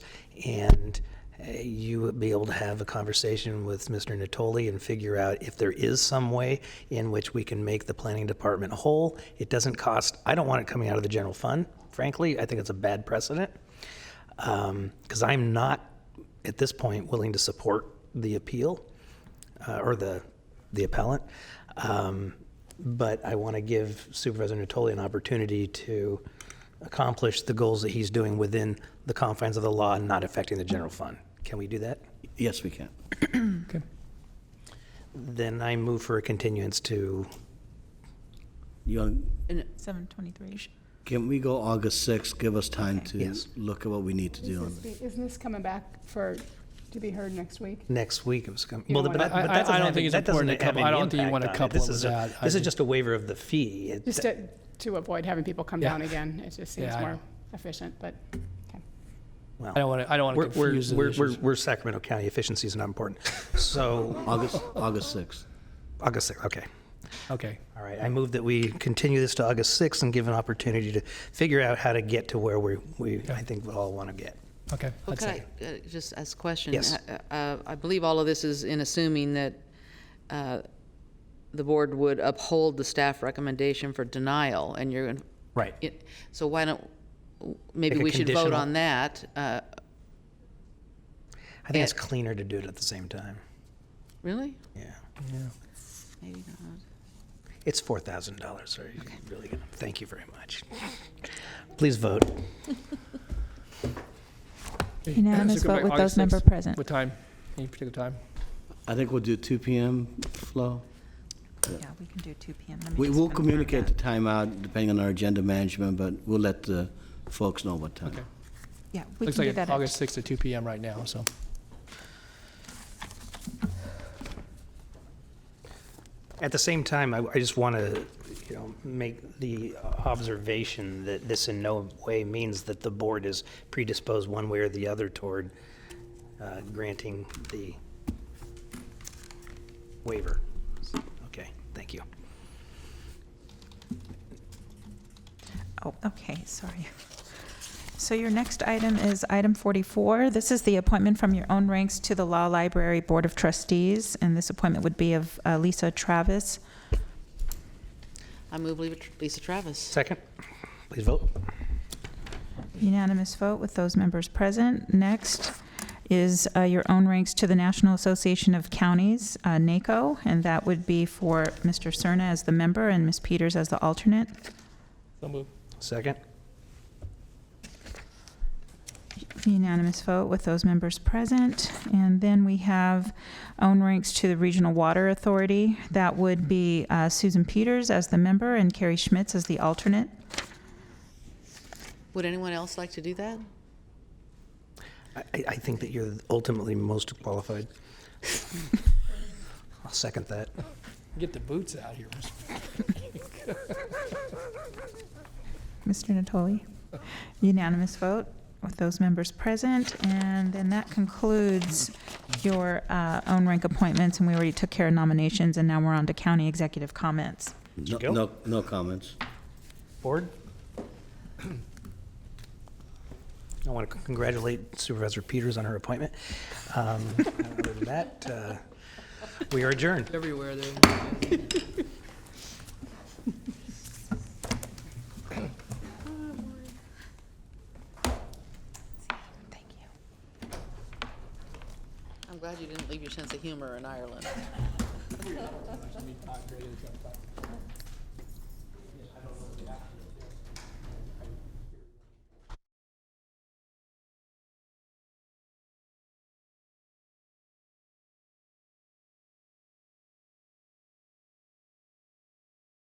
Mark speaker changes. Speaker 1: and uh, you would be able to have a conversation with Mr. Natoli and figure out if there is some way in which we can make the planning department whole. It doesn't cost, I don't want it coming out of the general fund, frankly. I think it's a bad precedent. Because I'm not, at this point, willing to support the appeal uh, or the, the appellant. Um, But I want to give Supervisor Natoli an opportunity to accomplish the goals that he's doing within the confines of the law and not affecting the general fund. Can we do that?
Speaker 2: Yes, we can.
Speaker 3: Okay.
Speaker 1: Then I move for a continuance to,
Speaker 2: You, want-
Speaker 4: Seven twenty-three.
Speaker 2: can we go August 6th? Give us time to
Speaker 1: Yes.
Speaker 2: look at what we need to do. on
Speaker 5: Is this be- Isn't this coming back for, to be heard next week?
Speaker 1: next week. It was com-
Speaker 5: You
Speaker 1: well,
Speaker 5: know
Speaker 1: but
Speaker 5: what?
Speaker 1: that- but
Speaker 3: I-
Speaker 1: that
Speaker 3: I- I
Speaker 1: doesn't
Speaker 3: don't
Speaker 1: have-
Speaker 3: think it's
Speaker 1: that doesn't
Speaker 3: important to
Speaker 1: have
Speaker 3: couple- I
Speaker 1: any
Speaker 3: don't think you
Speaker 1: impact
Speaker 3: wanna
Speaker 1: on it.
Speaker 3: couple
Speaker 1: This
Speaker 3: it
Speaker 1: is
Speaker 3: with
Speaker 1: a-
Speaker 3: that. I
Speaker 1: This is
Speaker 3: think-
Speaker 1: just a waiver of the fee. It-
Speaker 5: Just to, to avoid having people come
Speaker 3: Yeah.
Speaker 5: down again, it just seems
Speaker 3: Yeah, I
Speaker 5: more
Speaker 3: know.
Speaker 5: efficient, but, okay.
Speaker 3: I don't want to, I don't
Speaker 1: We're,
Speaker 3: want to
Speaker 1: we're,
Speaker 3: confuse the
Speaker 1: we're, we're,
Speaker 3: issues.
Speaker 1: we're Sacramento County, efficiency is not important. So,
Speaker 2: August, August 6th.
Speaker 1: August 6th, okay.
Speaker 3: Okay.
Speaker 1: All right, I move that we continue this to August 6th and give an opportunity to figure out how to get to where we, we, I think we all want to get.
Speaker 3: Okay.
Speaker 6: Well,
Speaker 3: I'd
Speaker 6: could
Speaker 3: second.
Speaker 6: I, uh, just as a question?
Speaker 1: Yes.
Speaker 6: Uh, uh, I believe all of this is in assuming that uh, the board would uphold the staff recommendation for denial, and you're, gonna-
Speaker 1: Right.
Speaker 6: y- so why don't, maybe
Speaker 1: Make a
Speaker 6: we should vote
Speaker 1: conditional-
Speaker 6: on that? uh,
Speaker 1: I think it's cleaner to do it at the same time.
Speaker 6: Really?
Speaker 1: Yeah.
Speaker 6: Maybe not.
Speaker 1: It's $4,000, so you really, gonna- thank you very much. Please vote.
Speaker 4: Unanimous
Speaker 3: uh, So go
Speaker 4: vote
Speaker 3: back
Speaker 4: with
Speaker 3: August
Speaker 4: those member
Speaker 3: 6th.
Speaker 4: present.
Speaker 3: What time? Any particular time?
Speaker 2: I think we'll do 2 PM, Flo.
Speaker 4: Yeah, we can do two PM.
Speaker 2: We will communicate the time out depending on our agenda management, but we'll let the folks know what time.
Speaker 3: Okay.
Speaker 4: Yeah, we
Speaker 3: Looks
Speaker 4: can
Speaker 3: like
Speaker 4: do
Speaker 3: it's
Speaker 4: that. at-
Speaker 3: August 6th at 2 PM right now, so.
Speaker 1: At the same time, I, I just want to, you know, make the observation that this in no way means that the board is predisposed one way or the other toward uh, granting the waiver. Okay, thank you.
Speaker 4: Oh, okay, sorry. So your next item is item forty-four. This is the appointment from your own ranks to the Law Library Board of Trustees, and this appointment would be of uh, Lisa Travis.
Speaker 6: I move Lisa- Lisa Travis.
Speaker 1: Second, please vote.
Speaker 4: Unanimous vote with those members present. Next is uh, your own ranks to the National Association of Counties, uh, NACO, and that would be for Mr. Cerna as the member and Ms. Peters as the alternate.
Speaker 3: So move.
Speaker 1: Second,
Speaker 4: Unanimous vote with those members present. And then we have own ranks to the Regional Water Authority. That would be uh, Susan Peters as the member and Carrie Schmitz as the alternate.
Speaker 6: Would anyone else like to do that?
Speaker 1: I, I I think that you're ultimately most qualified. I'll second that.
Speaker 3: Get the boots out here.
Speaker 4: Mr. Natoli? Unanimous vote with those members present. And then that concludes your uh, own rank appointments, and we already took care of nominations, and now we're on to county executive comments.
Speaker 2: No-
Speaker 1: go.
Speaker 2: No, no comments.
Speaker 1: Board? I want to congratulate Supervisor Peters on her appointment. Um, Other than that, uh, we are adjourned.
Speaker 3: Everywhere there.
Speaker 4: Thank you.
Speaker 6: I'm glad you didn't leave your sense of humor in Ireland.